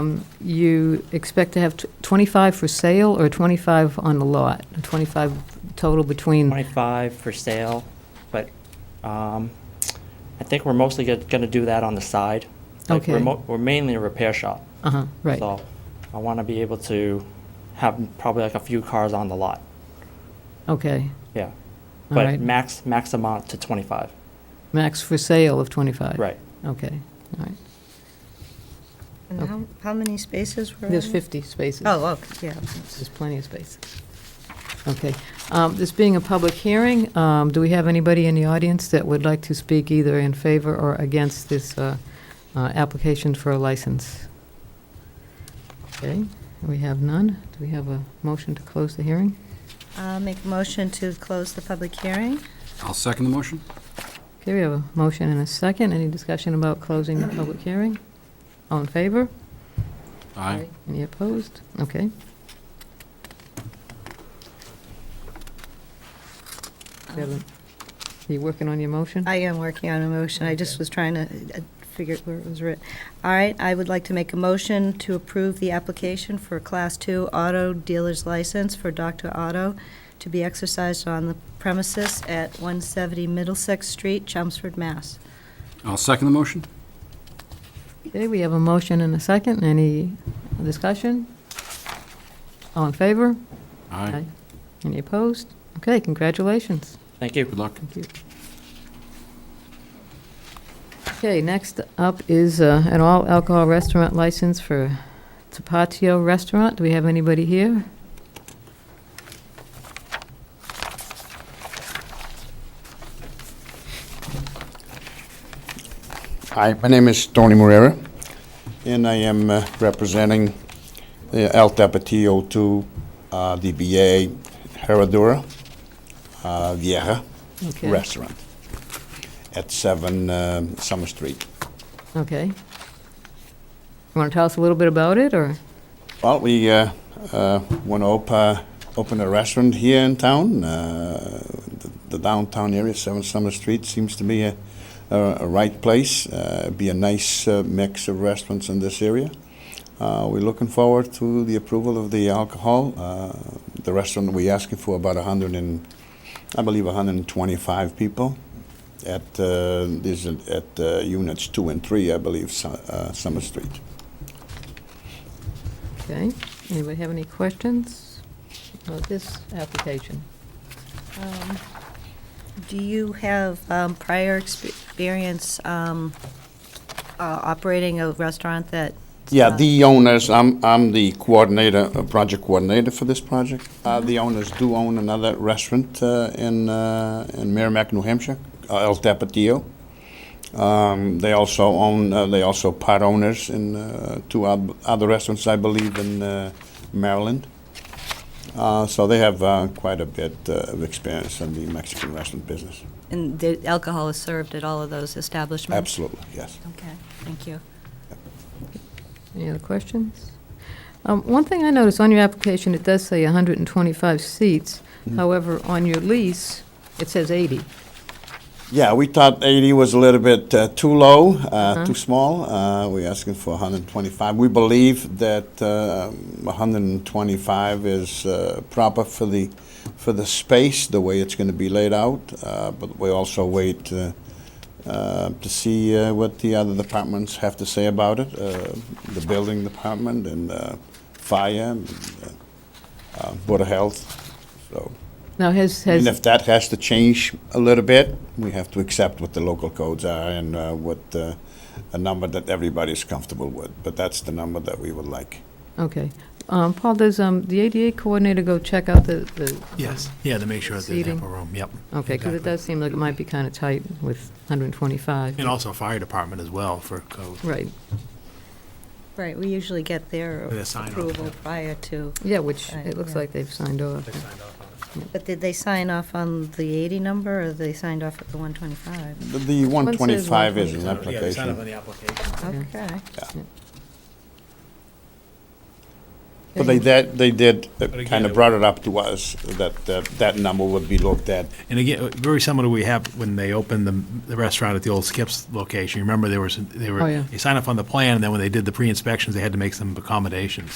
Um, You expect to have tw- 25 for sale or 25 on the lot? 25 total between, 25 for sale, but um, I think we're mostly going to do that on the side. Like, we're Okay. mo- We're mainly a repair shop. uh-huh, right. So I want to be able to have probably like a few cars on the lot, Okay, yeah. all But right. max, max amount to 25, Max for sale of 25? right. Okay, all right. And Okay. how, how many spaces were? There's in? 50 spaces. Oh, okay, yeah. There's plenty of space. Okay. Um, This being a public hearing, um, do we have anybody in the audience that would like to speak either in favor or against this uh, uh, application for a license? Okay, we have none. Do we have a motion to close the hearing? I'll make a motion to close the public hearing. I'll second the motion. Okay, we have a motion and a second. Any discussion about closing the public hearing? All in favor? Aye. Any opposed? Okay. Kevin, Are you working on your motion? I am working on a motion, I just was trying to uh, figure out where it was written. All right, I would like to make a motion to approve the application for a Class Two Auto Dealer's License for Dr. Auto to be exercised on the premises at 170 Middlesex Street, Chelmsford, Mass. I'll second the motion. Okay, we have a motion and a second. Any discussion? All in favor? Aye. Any opposed? Okay, congratulations. Thank you. Good luck. Thank you. Okay, next up is uh, an all-alcohol restaurant license for Tapatio Restaurant. Do we have anybody here? Hi, my name is Tony Morera, and I am uh, representing the El Tapatio 2 uh, DBA Herradura uh, Vieja Okay. Restaurant at 7 um, Summer Street. Okay. You want to tell us a little bit about it, or? Well, we uh, uh, want to op- uh, open a restaurant here in town. Uh, the, the downtown area, 7 Summer Street, seems to be a, a, a right place. Uh, be a nice uh, mix of restaurants in this area. Uh, we're looking forward to the approval of the alcohol. Uh, the restaurant we're asking for about 100 and, I believe, 125 people. At uh, this at uh, units two and three, I believe, Su- uh, Summer Street. Okay. Anybody have any questions about this application? Um, Do you have um, prior expe- experience um, uh, operating a restaurant that? Yeah, the owners, I'm, I'm the coordinator, uh, project coordinator for this project. Uh, the owners do own another restaurant, uh, in, uh, in Merrimack, New Hampshire, uh, El Tapatio. Um, they also own, uh, they also part owners in, uh, two oth- other restaurants, I believe, in, uh, Maryland. Uh, so they have, uh, quite a bit uh, of experience in the Mexican restaurant business. And the alcohol is served at all of those establishments? Absolutely, yes. Okay, thank you. Any other questions? Um, One thing I noticed on your application, it does say 125 seats. However, on your lease, it says 80. Yeah, we thought 80 was a little bit uh, too low, uh, too small. Uh, We're asking for 125. We believe that uh, 125 is uh, proper for the, for the space, the way it's going to be laid out, Uh, but we also wait uh, uh, to see uh, what the other departments have to say about it, uh, the building department and uh, fire, and, uh, uh, Board of Health, so. Now, has, And has, if that has to change a little bit, we have to accept what the local codes are and uh, what, uh, a number that everybody's comfortable with. But that's the number that we would like. okay. Um, Paul, does um, the ADA coordinator go check out the, the? Yes, yeah, to make sure that they have Seating. ample room, yep. Okay, because it Exactly. does seem like it might be kind of tight with 125. And also fire department as well for code. Right, Right, we usually get their With a sign off, approval yeah. prior to, yeah, which Right, it looks yeah. like they've signed off. They signed off on it. but did they sign off on the 80 number, or they signed off at the 125? The- The 125 is an Yeah, they signed off application. on the application. Okay. But they did, they did, again, kind it- of brought it up to us that uh, that number would be looked at. And again, uh, very similar to we have when they opened the, the restaurant at the old Skips location. You Remember, there was, they Oh, were, yeah. you sign up on the plan, and then when they did the pre-inspections, they had to make some accommodations.